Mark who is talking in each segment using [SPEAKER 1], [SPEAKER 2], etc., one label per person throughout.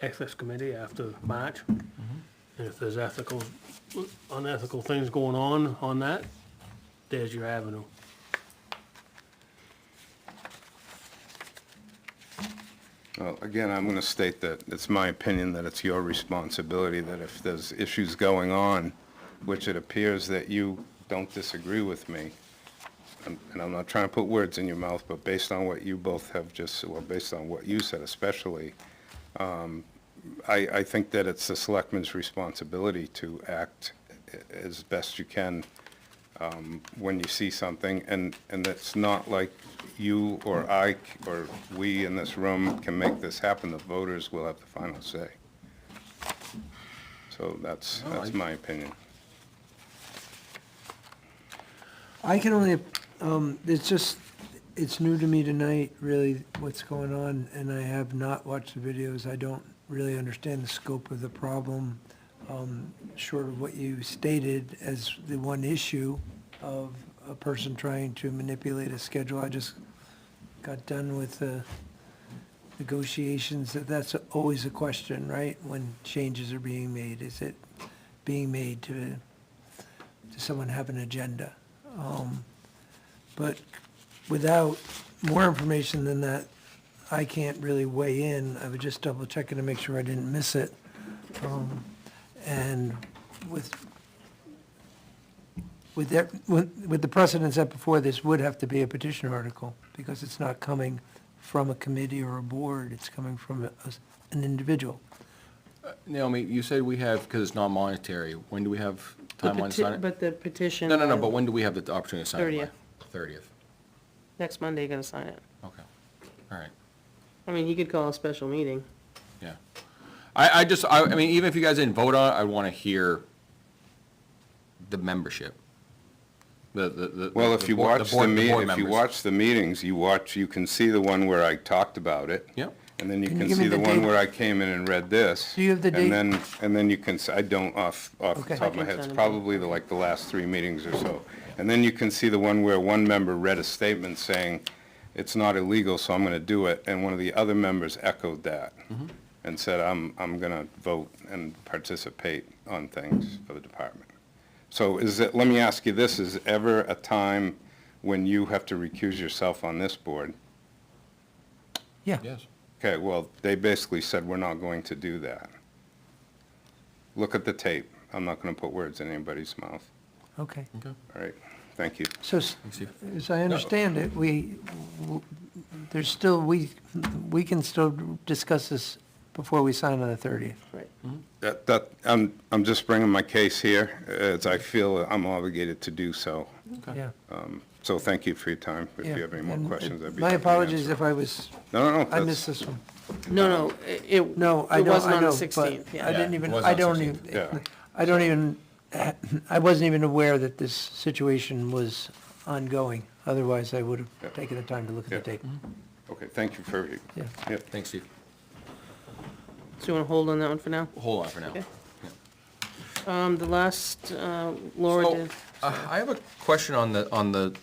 [SPEAKER 1] ethics committee after March. And if there's ethical, unethical things going on on that, there's your avenue.
[SPEAKER 2] Well, again, I'm going to state that it's my opinion that it's your responsibility, that if there's issues going on, which it appears that you don't disagree with me, and and I'm not trying to put words in your mouth, but based on what you both have just, well, based on what you said especially, um, I, I think that it's the selectman's responsibility to act a- as best you can when you see something, and, and it's not like you or I c- or we in this room can make this happen, the voters will have the final say. So that's, that's my opinion.
[SPEAKER 3] I can only, um, it's just, it's new to me tonight, really, what's going on, and I have not watched the videos. I don't really understand the scope of the problem, um, short of what you stated as the one issue of a person trying to manipulate a schedule. I just got done with the negotiations, that that's always a question, right? When changes are being made, is it being made to, does someone have an agenda? Um, But without more information than that, I can't really weigh in. I was just double checking to make sure I didn't miss it. Um, And with, with that, with with the precedents set before, this would have to be a petition article because it's not coming from a committee or a board. It's coming from a- an individual.
[SPEAKER 4] Naomi, you said we have, because it's non-monetary, when do we have
[SPEAKER 5] The
[SPEAKER 4] timeline to
[SPEAKER 5] peti-
[SPEAKER 4] sign it?
[SPEAKER 5] But the petition.
[SPEAKER 4] No, no, no,
[SPEAKER 5] on
[SPEAKER 4] but when do we have the opportunity to sign it
[SPEAKER 5] 30th.
[SPEAKER 4] by? Thirtieth,
[SPEAKER 5] Next Monday, gonna sign it.
[SPEAKER 4] okay, all right,
[SPEAKER 5] I mean, you could call a special meeting.
[SPEAKER 4] yeah. I, I just, I, I mean, even if you guys didn't vote on it, I want to hear the membership. The, the, the.
[SPEAKER 2] Well, if
[SPEAKER 4] the
[SPEAKER 2] you
[SPEAKER 4] board-
[SPEAKER 2] watch the
[SPEAKER 4] board-
[SPEAKER 2] me,
[SPEAKER 4] board
[SPEAKER 2] if you
[SPEAKER 4] members.
[SPEAKER 2] watch the meetings, you watch, you can see the one where I talked about it.
[SPEAKER 4] Yep.
[SPEAKER 2] And then you
[SPEAKER 3] Can you
[SPEAKER 2] can
[SPEAKER 3] give me
[SPEAKER 2] see the
[SPEAKER 3] the
[SPEAKER 2] one
[SPEAKER 3] date?
[SPEAKER 2] where I came in and read this.
[SPEAKER 3] Do you have the date?
[SPEAKER 2] And then, and then you can, s- I don't off, off the
[SPEAKER 3] Okay. I
[SPEAKER 2] top of my
[SPEAKER 5] can
[SPEAKER 2] head, it's
[SPEAKER 5] send them.
[SPEAKER 2] probably the, like the last three meetings or so. And then you can see the one where one member read a statement saying, it's not illegal, so I'm going to do it, and one of the other members echoed that
[SPEAKER 3] Mm-hmm.
[SPEAKER 2] and said, I'm, I'm going to vote and participate on things for the department. So is it, let me ask you this, is ever a time when you have to recuse yourself on this board?
[SPEAKER 3] Yeah.
[SPEAKER 4] Yes,
[SPEAKER 2] Okay, well, they basically said, we're not going to do that. Look at the tape. I'm not going to put words in anybody's mouth.
[SPEAKER 3] Okay.
[SPEAKER 4] okay,
[SPEAKER 2] All right, thank you.
[SPEAKER 3] So s-
[SPEAKER 4] thanks, Steve.
[SPEAKER 3] As I understand it, we, w- there's still, we, we can still discuss this before we sign on the 30th.
[SPEAKER 5] Right.
[SPEAKER 2] That, that, I'm, I'm just bringing my case here, as I feel I'm obligated to do so.
[SPEAKER 3] Yeah.
[SPEAKER 2] So thank you for your time. Oh, If you have any more
[SPEAKER 3] And
[SPEAKER 2] questions, I'd be happy to
[SPEAKER 3] My apologies
[SPEAKER 2] answer.
[SPEAKER 3] if I was,
[SPEAKER 2] No, no, no.
[SPEAKER 3] I
[SPEAKER 2] that's-
[SPEAKER 3] missed this one.
[SPEAKER 5] No, no, i- it.
[SPEAKER 3] No, I know,
[SPEAKER 5] It
[SPEAKER 3] I know,
[SPEAKER 5] wasn't on the
[SPEAKER 3] but
[SPEAKER 5] 16th,
[SPEAKER 3] I
[SPEAKER 5] yeah.
[SPEAKER 3] didn't
[SPEAKER 4] Yeah, it
[SPEAKER 3] even,
[SPEAKER 4] was
[SPEAKER 3] I
[SPEAKER 4] on
[SPEAKER 3] don't
[SPEAKER 4] 16th,
[SPEAKER 2] yeah.
[SPEAKER 3] even, I don't even, I wasn't even aware that this situation was ongoing. Otherwise, I would
[SPEAKER 2] Yeah.
[SPEAKER 3] have taken the time to look at the
[SPEAKER 2] Yeah.
[SPEAKER 3] tape.
[SPEAKER 5] Mm-hmm.
[SPEAKER 2] Okay, thank you for,
[SPEAKER 3] Yeah.
[SPEAKER 2] yeah,
[SPEAKER 4] Thanks, Steve.
[SPEAKER 5] So you wanna hold on that one for now?
[SPEAKER 4] Hold on for now.
[SPEAKER 5] Okay. Um, the last, uh, Laura
[SPEAKER 4] So,
[SPEAKER 5] did,
[SPEAKER 4] uh, I have a question on the, on the,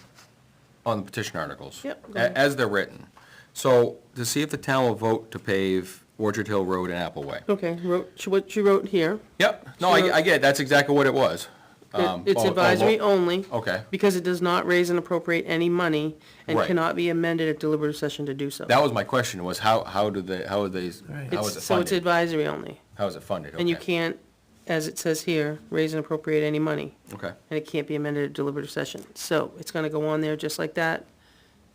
[SPEAKER 4] on the petition articles.
[SPEAKER 5] Yep, go ahead.
[SPEAKER 4] a- As they're written. So to see if the town will vote to pave Orchard Hill Road and Apple Way.
[SPEAKER 5] okay, wrote, she- what she wrote here.
[SPEAKER 4] Yep, no, I, I get, it. that's exactly what it was.
[SPEAKER 5] It-
[SPEAKER 4] Um,
[SPEAKER 5] It's
[SPEAKER 4] oh, oh,
[SPEAKER 5] advisory
[SPEAKER 4] lo-
[SPEAKER 5] only.
[SPEAKER 4] Okay.
[SPEAKER 5] Because it does not raise and appropriate any money and
[SPEAKER 4] Right.
[SPEAKER 5] cannot be amended at deliberative session to do so.
[SPEAKER 4] That was my question, was how, how do they, how are they,
[SPEAKER 3] Right.
[SPEAKER 4] how is it
[SPEAKER 5] It's- So it's
[SPEAKER 4] funded?
[SPEAKER 5] advisory only.
[SPEAKER 4] How is it funded?
[SPEAKER 5] And you
[SPEAKER 4] Okay.
[SPEAKER 5] can't, as it says here, raise and appropriate any money.
[SPEAKER 4] Okay,
[SPEAKER 5] And it can't be amended at deliberative session. So it's gonna go on there just like that.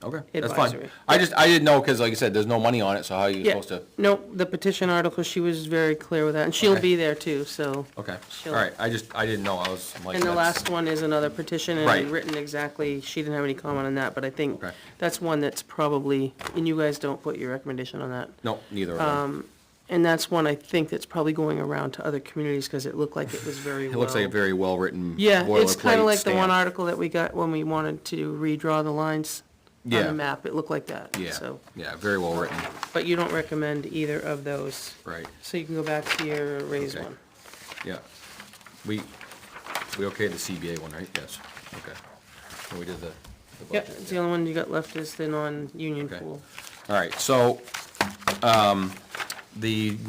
[SPEAKER 4] okay, that's fine.
[SPEAKER 5] Advisory.
[SPEAKER 4] I just, I didn't know, because like I said, there's no money on it, so how are you
[SPEAKER 5] Yeah,
[SPEAKER 4] supposed to?
[SPEAKER 5] no, the petition article, she was very clear with that, and she'll
[SPEAKER 4] Okay.
[SPEAKER 5] be there too, so.
[SPEAKER 4] Okay, all
[SPEAKER 5] Sure.
[SPEAKER 4] right, I just, I didn't know, I was I'm like.
[SPEAKER 5] And the
[SPEAKER 4] that's-
[SPEAKER 5] last one is another petition,
[SPEAKER 4] Right.
[SPEAKER 5] and written exactly, she didn't have any comment on that, but I think
[SPEAKER 4] Okay.
[SPEAKER 5] that's one that's probably, and you guys don't put your recommendation on that.
[SPEAKER 4] No, neither of
[SPEAKER 5] um,
[SPEAKER 4] them.
[SPEAKER 5] And that's one I think that's probably going around to other communities, because it looked like it was very well.
[SPEAKER 4] It looks like a very well-written
[SPEAKER 5] Yeah, it's kind
[SPEAKER 4] boilerplate
[SPEAKER 5] of like the one
[SPEAKER 4] stamp.
[SPEAKER 5] article that we got when we wanted to redraw the lines on
[SPEAKER 4] Yeah.
[SPEAKER 5] the map. It looked like that,
[SPEAKER 4] Yeah,
[SPEAKER 5] so.
[SPEAKER 4] yeah, very well written,
[SPEAKER 5] But you don't recommend either of those,
[SPEAKER 4] right,
[SPEAKER 5] so you can go back to your raise
[SPEAKER 4] Okay.
[SPEAKER 5] one.
[SPEAKER 4] yeah. We, we okay the CBA one, right? Yes, okay. And we did the. the
[SPEAKER 5] Yeah,
[SPEAKER 4] budget,
[SPEAKER 5] it's the only one you got left is the non-union
[SPEAKER 4] Okay.
[SPEAKER 5] pool.
[SPEAKER 4] All right, so, um, the